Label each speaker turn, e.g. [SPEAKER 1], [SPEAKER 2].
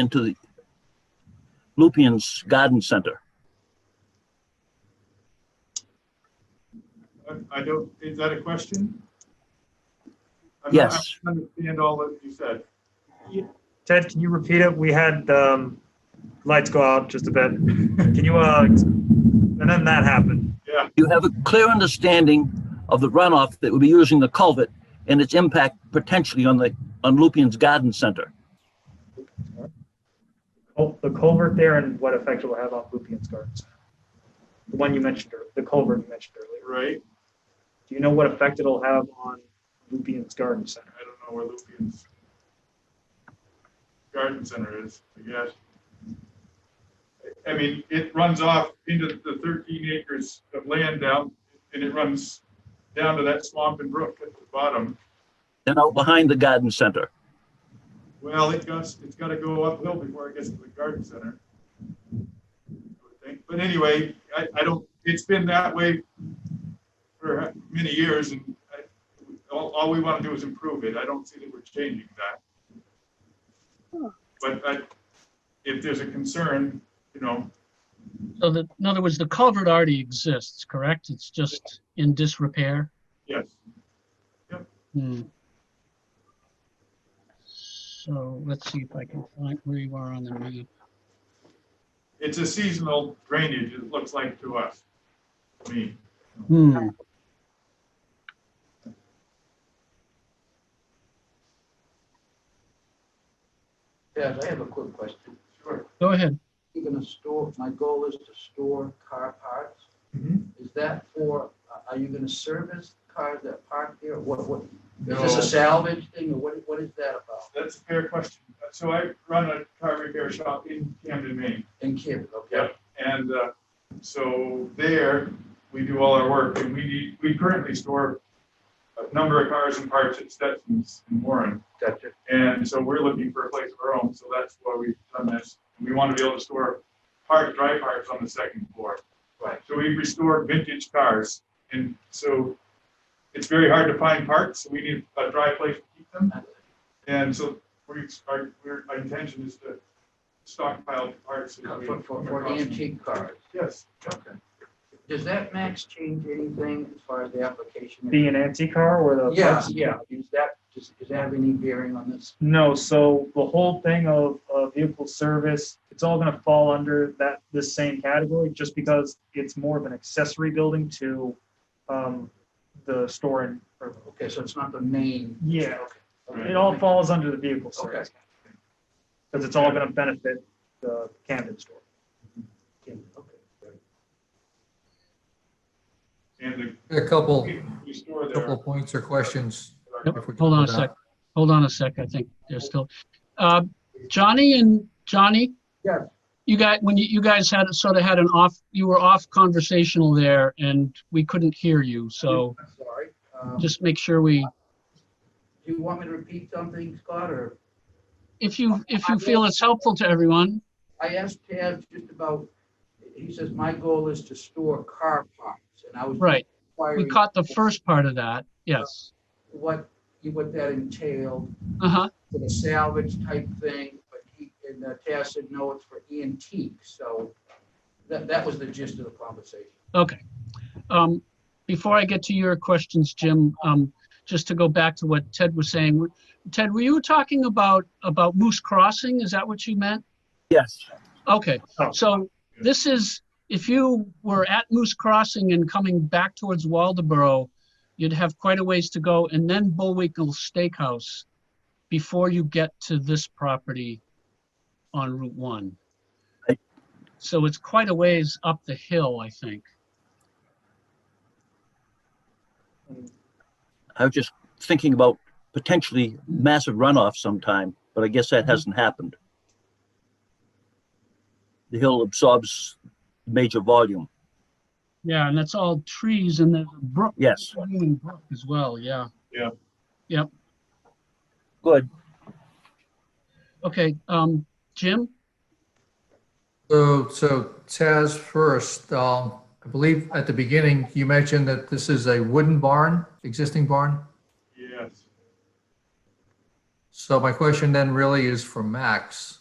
[SPEAKER 1] into the Lupien's Garden Center.
[SPEAKER 2] I- I don't, is that a question? I'm not-
[SPEAKER 1] Yes.
[SPEAKER 2] I don't Understand all that you said.
[SPEAKER 3] Ted, can you repeat it? We had um, lights go out just a bit. Can you, uh, and then that happened.
[SPEAKER 2] Yeah,
[SPEAKER 1] You have a clear understanding of the runoff that would be using the culvert and its impact potentially on the, on Lupien's Garden Center.
[SPEAKER 3] Oh, the culvert there and what effect it will have on Lupien's Gardens. The one you mentioned, ear- the culvert you mentioned earlier.
[SPEAKER 2] right?
[SPEAKER 3] Do you know what effect it'll have on Lupien's Garden Center?
[SPEAKER 2] I don't know where Lupien's garden center is, I guess. I mean, it runs off into the thirteen acres of land down, and it runs down to that swamp and brook at the bottom.
[SPEAKER 1] And out behind the garden center.
[SPEAKER 2] Well, it goes, it's gotta go uphill before it gets to the garden center. I would think. But anyway, I, I don't, it's been that way for many years and I, all, all we wanna do is improve it. I don't see that we're changing that. But I, if there's a concern, you know,
[SPEAKER 4] So that, in other words, the culvert already exists, correct? It's just in disrepair?
[SPEAKER 2] yes,
[SPEAKER 4] Hmm. So let's see if I can find where you are on the map.
[SPEAKER 2] it's a seasonal drainage, it looks like to us. I mean,
[SPEAKER 4] Hmm.
[SPEAKER 5] Yes, I have a quick question.
[SPEAKER 2] sure.
[SPEAKER 4] Go ahead.
[SPEAKER 5] You're gonna store, my goal is to store car parts. Is that for, uh, are you gonna service cars that park there? What, what, is this
[SPEAKER 2] No.
[SPEAKER 5] a salvage thing or what, what is that about?
[SPEAKER 2] That's a fair question. So I run a car repair shop in Camden, Maine.
[SPEAKER 5] In Camden, okay?
[SPEAKER 2] Yep, and uh, so there, we do all our work, and we, need- we currently store a number of cars and parts at Stetson's in Warren,
[SPEAKER 5] Gotcha.
[SPEAKER 2] and so we're looking for a place of our own, so that's why we've done this. We want to be able to store part, dry parts on the second floor.
[SPEAKER 5] Right.
[SPEAKER 2] So we restore vintage cars, and so it's very hard to find parts, so we need a dry place to keep them. And so we, our, we're- our intention is to stockpile parts. that we
[SPEAKER 5] For, for,
[SPEAKER 2] come
[SPEAKER 5] for
[SPEAKER 2] across.
[SPEAKER 5] antique cars.
[SPEAKER 2] Yes.
[SPEAKER 5] Okay. Does that max change anything as far as the application?
[SPEAKER 3] Be an antique car or the?
[SPEAKER 5] Yeah, yeah. Is that, does, does that have any bearing on this?
[SPEAKER 3] No, so the whole thing of, uh vehicle service, it's all gonna fall under that, this same category, just because it's more of an accessory building to, um, the store and, or,
[SPEAKER 5] Okay, so it's not the main.
[SPEAKER 3] yeah,
[SPEAKER 5] okay.
[SPEAKER 3] it all falls under the vehicle service. Because it's all gonna benefit the Camden store.
[SPEAKER 5] Okay, okay.
[SPEAKER 2] And
[SPEAKER 6] A couple,
[SPEAKER 2] the, we store
[SPEAKER 6] couple
[SPEAKER 2] there.
[SPEAKER 6] of points or questions.
[SPEAKER 4] Nope,
[SPEAKER 6] if we can
[SPEAKER 4] Hold on a
[SPEAKER 6] go
[SPEAKER 4] sec. Hold on a sec. I think there's still, uh, Johnny and Johnny?
[SPEAKER 5] Yes.
[SPEAKER 4] You guys, when you, you guys had, sort of had an off, you were off conversational there and we couldn't hear you. So
[SPEAKER 5] I'm Sorry. Um,
[SPEAKER 4] just make sure we,
[SPEAKER 5] Do you want me to repeat something, Scott, or?
[SPEAKER 4] if you, if you feel it's helpful to everyone,
[SPEAKER 5] I asked Taz just about, he says, my goal is to store car parts, and I was
[SPEAKER 4] right. We
[SPEAKER 5] inquiring
[SPEAKER 4] caught the first part of that. Yes.
[SPEAKER 5] what, what that entailed,
[SPEAKER 4] Uh-huh.
[SPEAKER 5] for the salvage type thing, but he, and uh, Taz said, no, it's for antique, so that, that was the gist of the conversation.
[SPEAKER 4] Okay. Um, Before I get to your questions, Jim, um, just to go back to what Ted was saying. Ted, were you talking about, about Moose Crossing? Is that what you meant?
[SPEAKER 1] Yes.
[SPEAKER 4] Okay,
[SPEAKER 3] Oh.
[SPEAKER 4] so this is, if you were at Moose Crossing and coming back towards Waldeboro, you'd have quite a ways to go and then Bullwinkle Steakhouse before you get to this property on Route 1.
[SPEAKER 1] Right.
[SPEAKER 4] So it's quite a ways up the hill, I think.
[SPEAKER 1] I was just thinking about potentially massive runoff sometime, but I guess that hasn't happened. The hill absorbs major volume.
[SPEAKER 4] Yeah, and that's all trees and there's a brook.
[SPEAKER 1] Yes.
[SPEAKER 4] Running brook As well, yeah.
[SPEAKER 1] Good.
[SPEAKER 4] Okay, um, Jim?
[SPEAKER 6] So, so Taz first, um, I believe at the beginning, you mentioned that this is a wooden barn, existing barn.
[SPEAKER 2] Yes.
[SPEAKER 6] So my question then really is for Max.